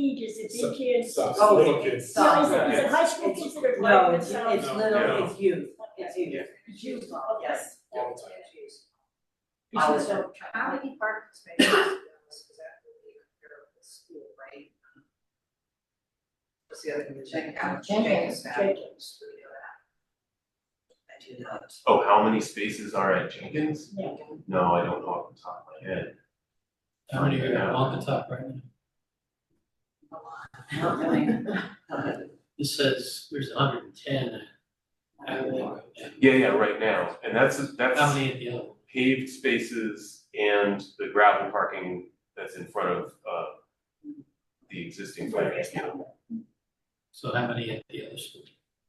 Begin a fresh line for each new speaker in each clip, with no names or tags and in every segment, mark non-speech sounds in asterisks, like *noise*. your kids.
Sucks,
Oh,
little kids.
No, is
Stop.
it, is it high school kids that are
No,
driving
it's, it's
No,
little,
no.
it's youth, it's
Okay,
youth,
it's you, okay.
yes.
All the time.
You should
All the
start-
So how many parking spaces is that really comparable to school, right? What's the other one, check out Jenkins, Jenkins, do we know that? I do not.
Oh, how many spaces are at Jenkins?
Yeah.
No, I don't know off the top of my head.
How many are there off the top right now?
Not *laughs* really. Uh,
This says there's hundred and ten. How
Yeah, yeah, right now, and that's, that's
many at the other? one?
paved spaces and the gravel parking that's in front of, uh, the existing finance building.
So how many at the other school?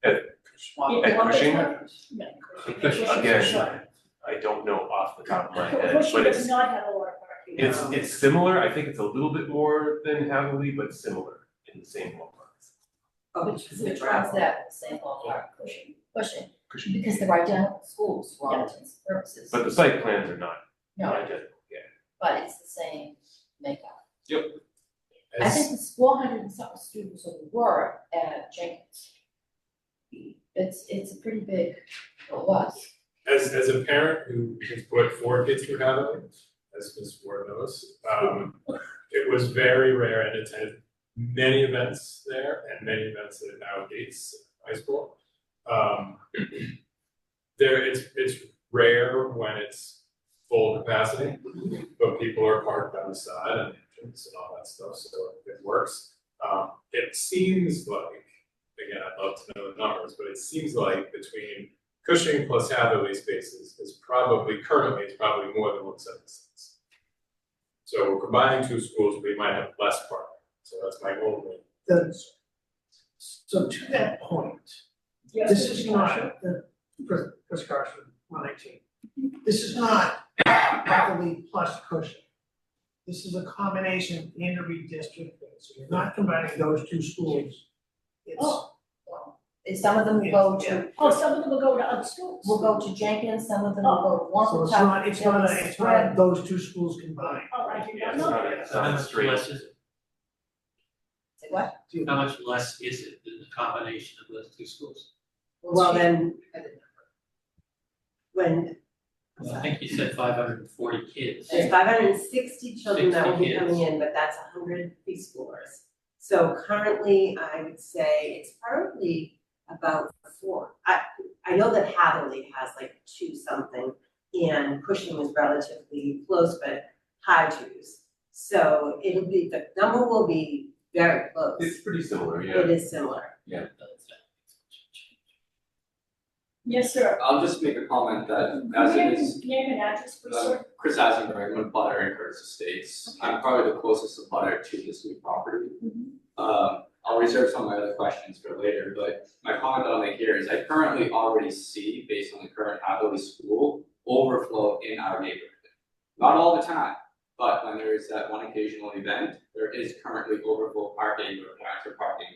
At Cushing,
Yeah.
Cushing.
Again. I don't know off the top of my head,
Cushing
but
does
it's,
not have a lot of parking.
it's, it's similar, I think it's a little bit more than Haverly, but similar in the same ballpark.
Oh,
Which
the
is which
drive.
one's that same ballpark cushion, cushion, because they're identical schools for all intents and purposes.
But the site plans are not,
No,
not identical, yeah.
but it's the same makeup. I
As-
think it's four hundred and something students who were at Jenkins. It's, it's a pretty big, well, it was.
as as a parent who has put four kids through Hathaway, as Ms. Ward knows, um, it was very rare and attended many events there and many events at now Gates High School. Um, there, it's it's rare when it's full capacity, but people are parked on the side and entrance and all that stuff, so it works. Um, it seems like, again, I'd love to know the numbers, but it seems like between Cushing plus Hathaway spaces is probably, currently, it's probably more than one seven six. So we're combining two schools, we might have less parking, so that's my only.
The- so to that point,
Yeah,
this is
Cushing.
not, the, Chris, Chris Carson, one nineteen. This is not properly plus cushion. This is a combination and a redistricting, so you're not combining those two schools. It's,
Oh. Well, and some of them will go
Yeah.
to,
Oh, some of them will go to other schools.
will go to Jenkins, some of them will
Oh,
go to
so
Warren
it's not, it's not, a- it's not
spread.
those two schools combined.
Oh, I do
Yeah,
not
it's
know.
not, it's not
How
straight.
much less is it?
Say What?
Do-
How much less is it than the combination of those two schools?
Well, then. When, I'm
I
sorry.
think you said five hundred and forty kids.
there's five hundred and sixty children that will be
60 kids.
coming in, but that's hundred preschoolers. So currently, I would say it's probably about four. I, I know that Hathaway has like two something, and Cushing is relatively close, but high twos. So it'll be, the number will be very close.
It's pretty similar, yeah.
It is similar.
Yes, sir.
I'll just make a comment that as
Name and-
it is,
Name and address, please,
uh,
sir.
Chris Eisenberg, I'm a butter in Curtis Estates. I'm probably the closest butter to this new property.
Mm-hmm.
Um, I'll reserve some of my other questions for later, but my comment that I'll make here is I currently already see, based on the current Hathaway school, overflow in our neighborhood. Not all the time, but when there is that one occasional event, there is currently overflow parking or plans for parking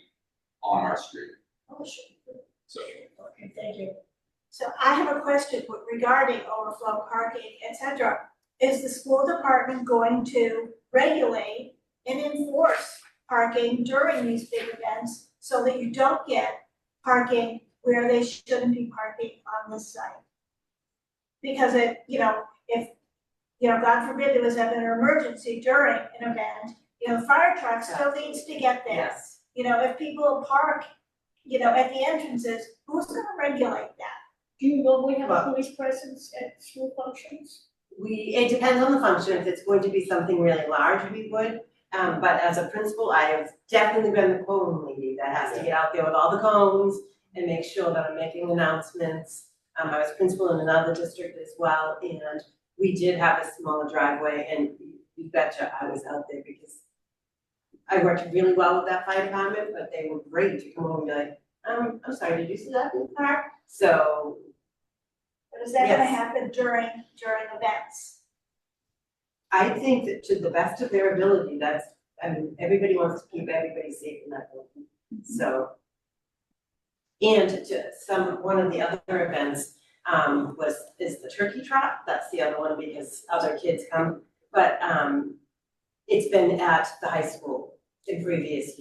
on our street.
Oh, sure.
So
Okay, thank you.
So I have a question regarding overflow parking, et cetera. Is the school department going to regulate and enforce parking during these big events so that you don't get parking where they shouldn't be parking on this site? Because it, you know, if, you know, God forbid there was an emergency during an event, you know, the fire truck still needs to get there.
Yes.
You know, if people park, you know, at the entrances, who's gonna regulate that?
Do you know we have a
Well-
police presence at school functions?
We, it depends on the function, if it's going to be something really large, we would, um, but as a principal, I have definitely been the cone lady that has to get out there with all the cones and make sure that I'm making announcements. Um, I was principal in another district as well, and we did have a smaller driveway, and you betcha I was out there because I worked really well with that fire department, but they were great to come over and be like, um, I'm sorry, did you see that in the park? So
Is that gonna
Yes.
happen during, during events?
I think that to the best of their ability, that's, I mean, everybody wants to keep everybody safe in that building, so. And to some, one of the other events, um, was, is the turkey trot, that's the other one because other kids come, but, um, it's been at the high school in previous